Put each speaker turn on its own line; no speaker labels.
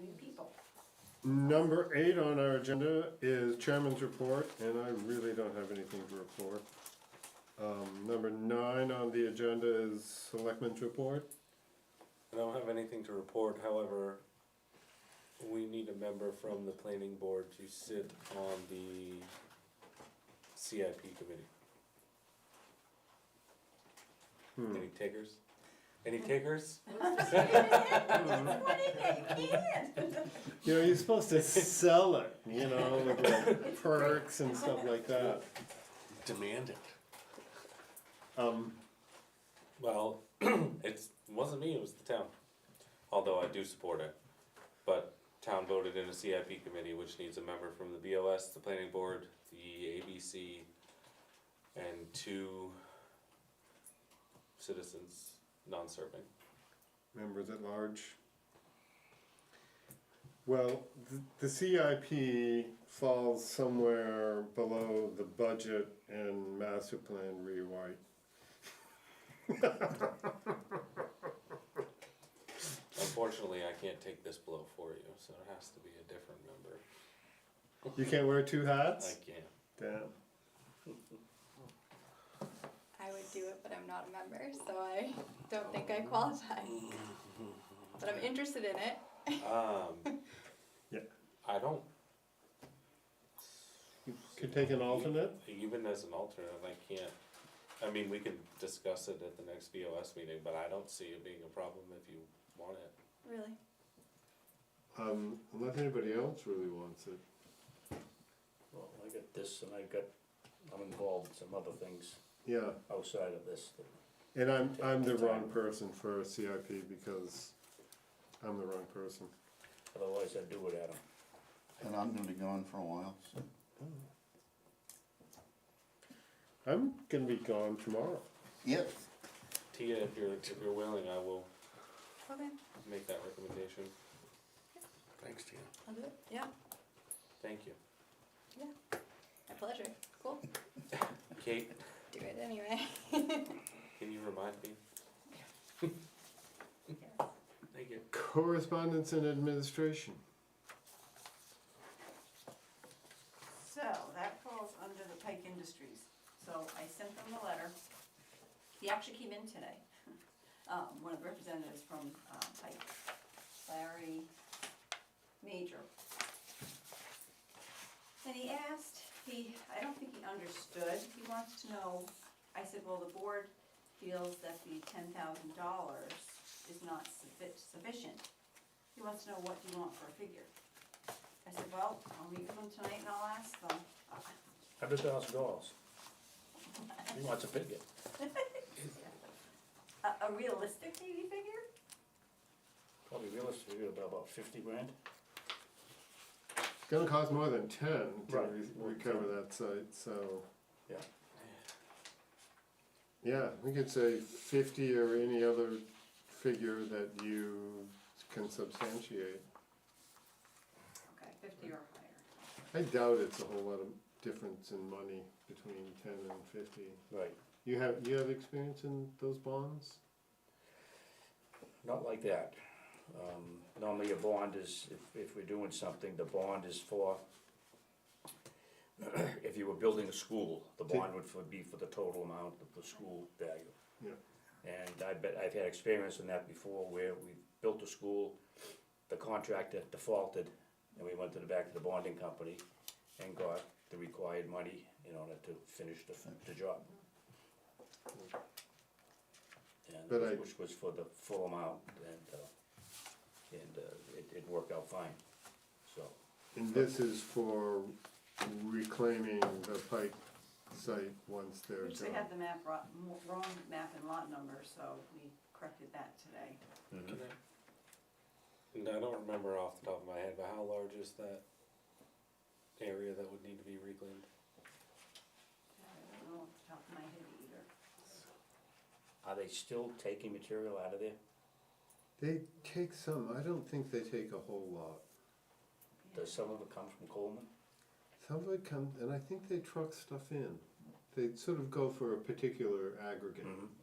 Number eight on our agenda is chairman's report, and I really don't have anything to report. Um, number nine on the agenda is selectmen's report.
I don't have anything to report, however, we need a member from the planning board to sit on the CIP committee. Any takers? Any takers?
You know, you're supposed to sell it, you know, with like perks and stuff like that.
Demand it.
Um,
Well, it's, wasn't me, it was the town, although I do support it. But town voted in a CIP committee, which needs a member from the BOS, the planning board, the ABC, and two citizens, non-serving.
members at large. Well, th- the CIP falls somewhere below the budget and master plan rewrite.
Unfortunately, I can't take this blow for you, so it has to be a different member.
You can't wear two
I
hats?
can't.
Damn.
I would do it, but I'm not a member, so I don't think I qualify. But I'm interested in it.
Um,
Yeah.
I don't,
You Could take an alternate?
even as an alternate, I can't, I mean, we can discuss it at the next BOS meeting, but I don't see it being a problem if you want it.
Really?
Um, unless anybody else really wants it.
Well, I got this and I got, I'm involved in some other things
Yeah,
outside of this. that-
and I'm, I'm the wrong person for CIP because I'm the wrong person.
Otherwise I'd do it, Adam.
And I'm gonna be gone for a while, so.
I'm gonna be gone tomorrow.
Yep.
Tia, if you're, if you're willing, I will
Okay,
make that recommendation.
Thanks, Tina.
I'll do it. Yeah,
Thank you.
yeah. My pleasure. Cool.
Kate,
Do it anyway.
can you remind me? Thank you.
Correspondence and administration.
So that falls under the Pike Industries. So I sent them the letter. He actually came in today, um, one of the representatives from uh, Pike, Larry Major. And he asked, he, I don't think he understood, he wants to know, I said, well, the board feels that the ten thousand dollars is not suffi- sufficient. He wants to know what you want for a figure. I said, well, I'll meet with them tonight and I'll ask them. Uh,
Hundred thousand dollars. He wants a bigot.
A, a realistic maybe figure?
Probably realistically about, about fifty grand.
It's gonna cost more than ten to
Right.
re- recover that site, so,
Yeah.
yeah, we could say fifty or any other figure that you can substantiate.
Okay, fifty or higher.
I doubt it's a whole lot of difference in money between ten and fifty.
Right.
You have, you have experience in those bonds?
Not like that. Um, normally a bond is, if, if we're doing something, the bond is for, if you were building a school, the bond would for- be for the total amount of the school value.
Yeah.
And I bet, I've had experience in that before where we built a school, the contractor defaulted, and we went to the back of the bonding company and got the required money in order to finish the, the job. And
But I-
which was for the full amount and, uh, and, uh, it, it worked out fine, so.
And this is for reclaiming the Pike site once they're
Which they had
done.
the map, ro- mo- wrong map and lot number, so we corrected that today.
Can I- And I don't remember off the top of my head, but how large is that area that would need to be reclaimed?
I don't know off the top of my head either.
Are they still taking material out of there?
They take some, I don't think they take a whole lot.
Does some of it come from Coleman?
Some of it comes, and I think they truck stuff in. They sort of go for a particular aggregate.